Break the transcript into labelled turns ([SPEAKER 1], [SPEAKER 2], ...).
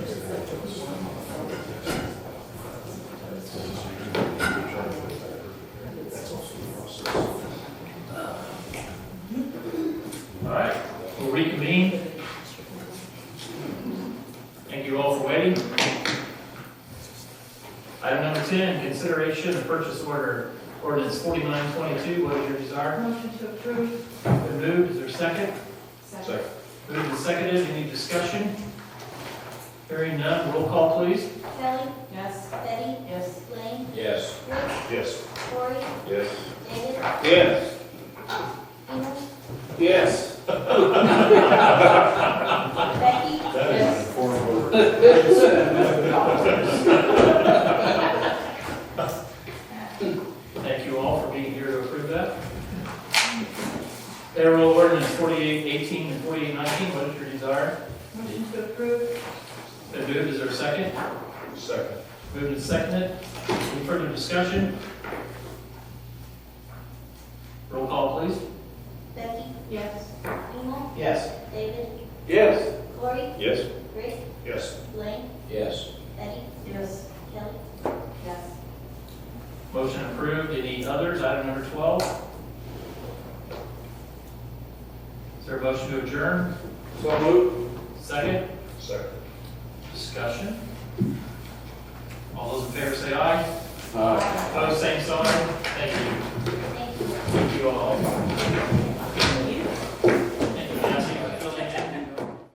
[SPEAKER 1] both away. Item number ten, consideration of purchase order, ordinance forty-nine twenty-two, what is your desire?
[SPEAKER 2] Motion to approve.
[SPEAKER 1] Been moved, is there a second?
[SPEAKER 2] Second.
[SPEAKER 1] Moved and seconded, any discussion? Hearing none, roll call please.
[SPEAKER 3] Kelly,
[SPEAKER 2] Yes.
[SPEAKER 3] Betty,
[SPEAKER 2] Yes.
[SPEAKER 3] Lane,
[SPEAKER 4] Yes.
[SPEAKER 3] Rick,
[SPEAKER 4] Yes.
[SPEAKER 3] Cory,
[SPEAKER 4] Yes.
[SPEAKER 3] David,
[SPEAKER 4] Yes.
[SPEAKER 3] Enos,
[SPEAKER 4] Yes.
[SPEAKER 3] Becky,
[SPEAKER 4] That is a form of order.
[SPEAKER 1] Thank you all for being here to approve that. Payroll ordinance forty-eight eighteen and forty-eight nineteen, what is your desire?
[SPEAKER 2] Motion to approve.
[SPEAKER 1] Been moved, is there a second?
[SPEAKER 4] Second.
[SPEAKER 1] Moved and seconded, any further discussion? Roll call please.
[SPEAKER 3] Becky,
[SPEAKER 2] Yes.
[SPEAKER 3] Enos,
[SPEAKER 4] Yes.
[SPEAKER 3] David,
[SPEAKER 4] Yes.
[SPEAKER 3] Cory,
[SPEAKER 4] Yes.
[SPEAKER 3] Rick,
[SPEAKER 4] Yes.
[SPEAKER 3] Lane,
[SPEAKER 4] Yes.
[SPEAKER 3] Betty,
[SPEAKER 2] Yes.
[SPEAKER 3] Kelly,
[SPEAKER 2] Yes.
[SPEAKER 1] Motion approved. Any others? Item number 12. Is there a motion to adjourn?
[SPEAKER 4] So moved.
[SPEAKER 1] Second,
[SPEAKER 4] Second.
[SPEAKER 1] discussion. All those in favor say aye. Opposed, same sign.